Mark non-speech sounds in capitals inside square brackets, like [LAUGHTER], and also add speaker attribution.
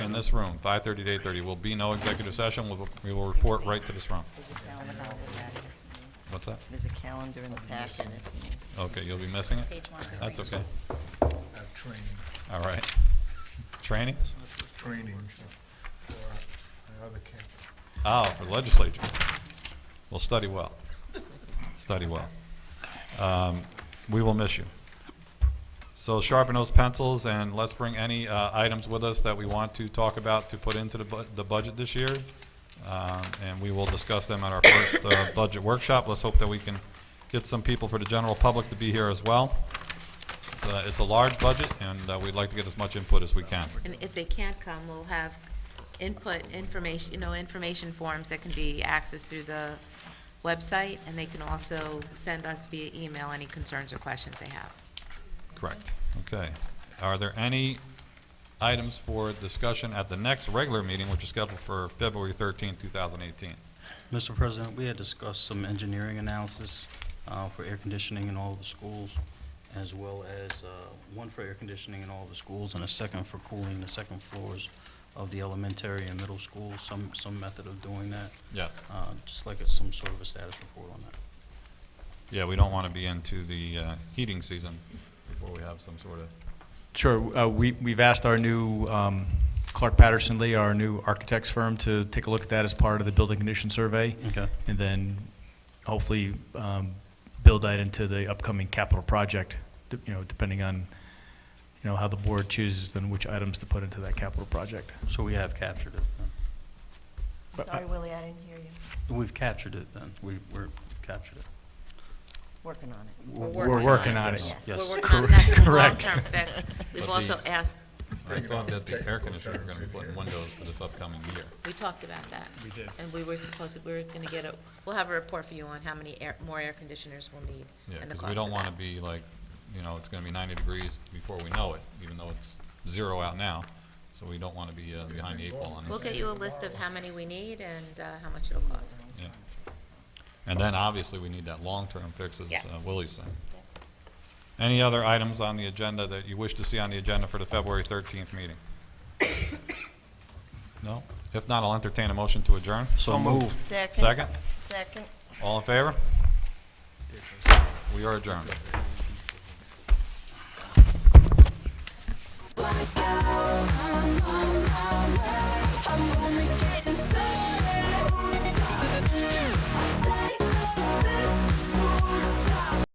Speaker 1: in this room, five thirty to eight thirty. Will be no executive session. We'll- We will report right to this room.
Speaker 2: There's a calendar in the packet.
Speaker 1: What's that?
Speaker 2: There's a calendar in the packet. if you need.
Speaker 1: Okay, you'll be missing it?
Speaker 3: Page one.
Speaker 1: That's okay.
Speaker 4: uh, training,
Speaker 1: All right. Training?
Speaker 4: training for my other campus.
Speaker 1: Oh, for legislatures. Well, study well. Study well. Um, We will miss you. So sharpen those pencils and let's bring any uh, items with us that we want to talk about to put into the bu- the budget this year. Um, And we will discuss them at our first uh, budget workshop. Let's hope that we can get some people for the general public to be here as well. It's a- It's a large budget and uh, we'd like to get as much input as we can.
Speaker 3: And if they can't come, we'll have input, information, you know, information forms that can be accessed through the website, and they can also send us via email any concerns or questions they have.
Speaker 1: Correct. Okay. Are there any items for discussion at the next regular meeting, which is scheduled for February thirteenth, two thousand eighteen?
Speaker 5: Mr. President, we had discussed some engineering analysis uh, for air conditioning in all the schools, as well as uh, one for air conditioning in all the schools and a second for cooling the second floors of the elementary and middle schools, some, some method of doing that.
Speaker 1: Yes.
Speaker 5: Uh, Just like a- some sort of a status report on that.
Speaker 1: Yeah, we don't want to be into the uh, heating season before we have some sort of,
Speaker 6: Sure. uh, we- We've asked our new um, Clark Patterson Lee, our new architects firm, to take a look at that as part of the building condition survey,
Speaker 5: Okay.
Speaker 6: and then hopefully um, build that into the upcoming capital project, d- you know, depending on, you know, how the board chooses then which items to put into that capital project.
Speaker 5: So we have captured it. then.
Speaker 6: But uh, I-
Speaker 2: Sorry, Willie, I didn't hear you.
Speaker 5: We've captured it then. We, we're captured it.
Speaker 2: Working on it.
Speaker 3: We're
Speaker 6: We're working on it.
Speaker 2: Yes.
Speaker 5: Yes.
Speaker 1: [LAUGHS]
Speaker 3: We're working on, that's a
Speaker 6: Correct.
Speaker 3: long-term fix.
Speaker 1: But
Speaker 3: We've
Speaker 1: the-
Speaker 3: also asked,
Speaker 1: I thought that the air conditioners were going to be putting windows for this upcoming year.
Speaker 3: we talked about that. We did. And we were supposed to, we were gonna get a, we'll have a report for you on how many air, more air conditioners we'll need
Speaker 1: Yeah,
Speaker 3: and the
Speaker 1: because
Speaker 3: cost
Speaker 1: we
Speaker 3: of
Speaker 1: don't want to
Speaker 3: that.
Speaker 1: be like, you know, it's going to be ninety degrees before we know it, even though it's zero out now. So we don't want to be uh, behind the eight ball on this.
Speaker 3: We'll get you a list of how many we need and, uh, how much it'll cost.
Speaker 1: Yeah. And then obviously, we need that long-term fix, as
Speaker 3: Yeah.
Speaker 1: uh, Willie said. Any other items on the agenda that you wish to see on the agenda for the February 13th meeting? No? If not, I'll entertain a motion to adjourn.
Speaker 5: So moved.
Speaker 2: Second?
Speaker 1: Second?
Speaker 2: Second.
Speaker 1: All in favor? We are adjourned.